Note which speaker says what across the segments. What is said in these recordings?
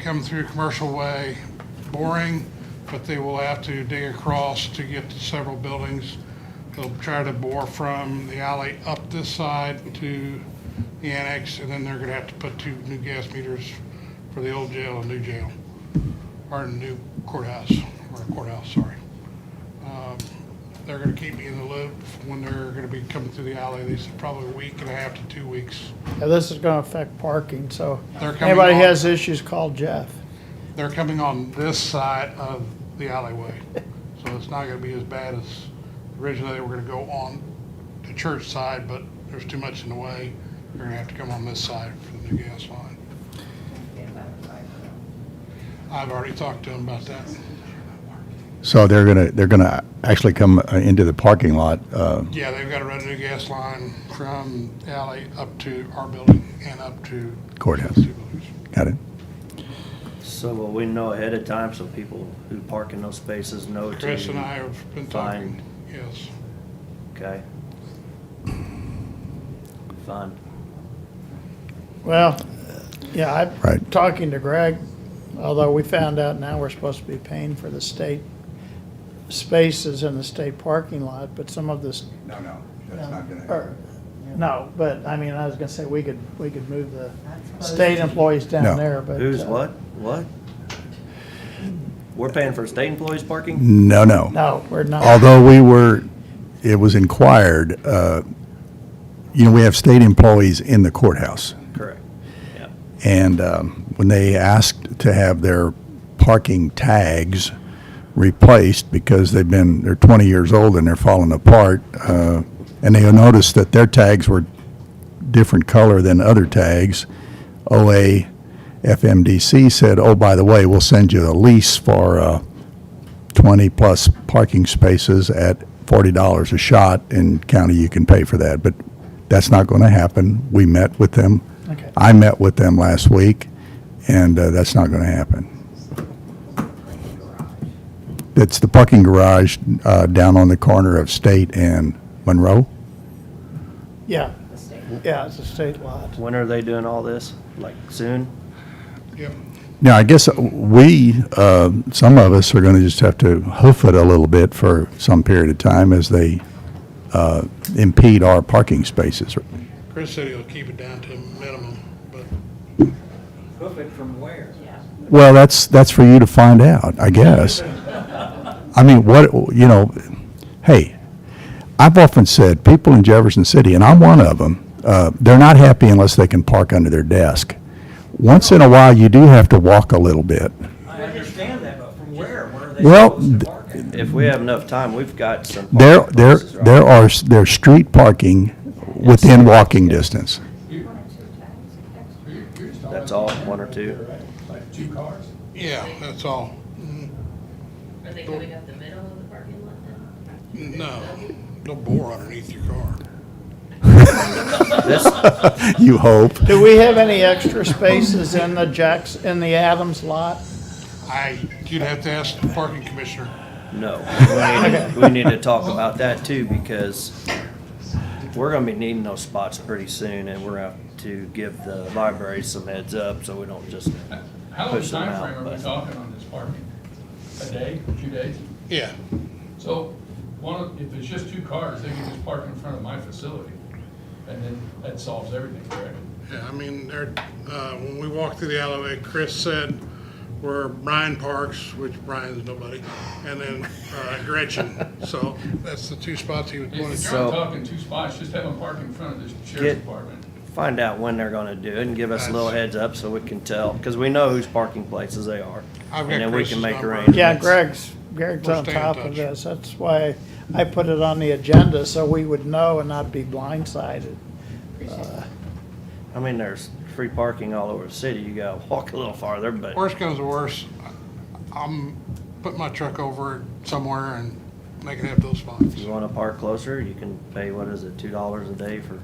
Speaker 1: come through Commercial Way, boring, but they will have to dig across to get to several buildings. They'll try to bore from the alley up this side to the annex, and then they're gonna have to put two new gas meters for the old jail and new jail, or new courthouse, or courthouse, sorry. Um, They're gonna keep me in the loop when they're gonna be coming through the alley, they said probably a week and a half to two weeks.
Speaker 2: Yeah, this is gonna affect parking, so
Speaker 1: They're coming
Speaker 2: anybody
Speaker 1: on-
Speaker 2: has issues, call Jeff.
Speaker 1: They're coming on this side of the alleyway, so it's not gonna be as bad as originally they were gonna go on the church side, but there's too much in the way. They're gonna have to come on this side for the new gas line. I've already talked to them about that.
Speaker 3: So they're gonna, they're gonna actually come uh, into the parking lot, uh,
Speaker 1: Yeah, they've gotta run a new gas line from the alley up to our building and up to.
Speaker 3: Courthouse.
Speaker 1: those two buildings.
Speaker 3: got it?
Speaker 4: So will we know ahead of time so people who park in those spaces know to?
Speaker 1: Chris and I have been talking, yes.
Speaker 4: Okay. Fine.
Speaker 2: Well, yeah, I'm
Speaker 3: Right.
Speaker 2: talking to Greg, although we found out now we're supposed to be paying for the state spaces in the state parking lot, but some of this.
Speaker 3: No, no,
Speaker 2: or- No, but I mean, I was gonna say, we could, we could move the state employees
Speaker 3: No.
Speaker 2: down there, but.
Speaker 4: Who's
Speaker 2: uh,
Speaker 4: what? What? We're paying for state employees parking?
Speaker 3: No, no.
Speaker 2: No, we're not.
Speaker 3: Although we were, it was inquired, uh, you know, we have state employees in the courthouse.
Speaker 4: Correct. Yeah.
Speaker 3: And um, when they asked to have their parking tags replaced because they've been, they're 20 years old and they're falling apart, uh, and they noticed that their tags were different color than other tags, OA FMDC said, oh, by the way, we'll send you a lease for uh, 20-plus parking spaces at $40 a shot, and county, you can pay for that. But that's not going to happen. We met with them.
Speaker 2: Okay.
Speaker 3: I met with them last week, and uh, that's not going to happen. It's the parking garage uh, down on the corner of State and Monroe.
Speaker 2: Yeah, yeah, it's a state lot.
Speaker 4: When are they doing all this? Like soon?
Speaker 1: Yep,
Speaker 3: Now, I guess we, uh, some of us are going to just have to hoof it a little bit for some period of time as they uh, impede our parking spaces.
Speaker 1: Chris said he'll keep it down to a minimum, but
Speaker 5: Hoof it from where?
Speaker 3: Well, that's, that's for you to find out, I guess. I mean, what, you know, hey, I've often said, people in Jefferson City, and I'm one of them, uh, they're not happy unless they can park under their desk. Once in a while, you do have to walk a little bit.
Speaker 5: I understand that, but from where? Where are they
Speaker 3: Well,
Speaker 5: supposed to
Speaker 3: th-
Speaker 5: park it?
Speaker 4: If we have enough time, we've got some. parking
Speaker 3: There, there,
Speaker 4: places, right?
Speaker 3: there are, s- there's street parking within walking distance.
Speaker 4: That's all, one or two.
Speaker 1: yeah, that's all.
Speaker 6: Are they coming up the middle of the parking lot then?
Speaker 1: No, no bore underneath your car.
Speaker 4: This,
Speaker 3: You hope.
Speaker 2: Do we have any extra spaces in the Jacks, in the Adams lot?
Speaker 1: I, you'd have to ask the parking commissioner.
Speaker 4: No, we need, we need to talk about that too, because we're gonna be needing those spots pretty soon, and we're gonna have to give the library some heads up, so we don't just,
Speaker 7: How long
Speaker 4: push them out,
Speaker 7: timeframe are
Speaker 4: but-
Speaker 7: we talking on this parking? A day, two days?
Speaker 1: Yeah,
Speaker 7: So, one, of- if there's just two cars, they can just park in front of my facility, and then that solves everything, correct?
Speaker 1: yeah, I mean, there, uh, when we walked through the alleyway, Chris said where Brian parks, which Brian's nobody, and then uh, Gretchen. So that's the two spots he would
Speaker 7: If-
Speaker 1: want
Speaker 7: If
Speaker 1: to.
Speaker 7: you're
Speaker 4: So-
Speaker 7: not talking two spots, just have them park in front of the
Speaker 4: Get-
Speaker 7: sheriff's department.
Speaker 4: find out when they're gonna do it, and give us a little heads up so we can tell, cause we know whose parking places they are.
Speaker 1: I've got
Speaker 4: And then we
Speaker 1: Chris's
Speaker 4: can make
Speaker 1: number.
Speaker 4: arrangements.
Speaker 2: Yeah, Greg's, Greg's
Speaker 1: We'll
Speaker 2: on
Speaker 1: stay in
Speaker 2: top of
Speaker 1: touch.
Speaker 2: this. That's why I put it on the agenda, so we would know and not be blindsided.
Speaker 4: I mean, there's free parking all over the city, you gotta walk a little farther, but
Speaker 1: Worst comes to worst, I'm, put my truck over somewhere and make it have those spots.
Speaker 4: if you wanna park closer, you can pay, what is it, two dollars a day for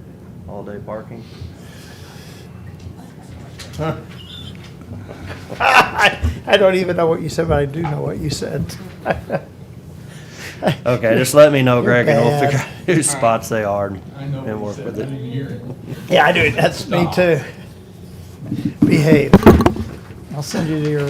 Speaker 4: all-day parking?
Speaker 2: I don't even know what you said, but I do know what you said.
Speaker 4: Okay, just let me know, Greg, and we'll
Speaker 2: bad.
Speaker 4: figure out whose spots they are and
Speaker 7: I know
Speaker 4: and work
Speaker 7: what he
Speaker 4: with
Speaker 7: said, I
Speaker 4: it.
Speaker 7: didn't hear it.
Speaker 2: Yeah, I do. That's me too. Behave. I'll send you to your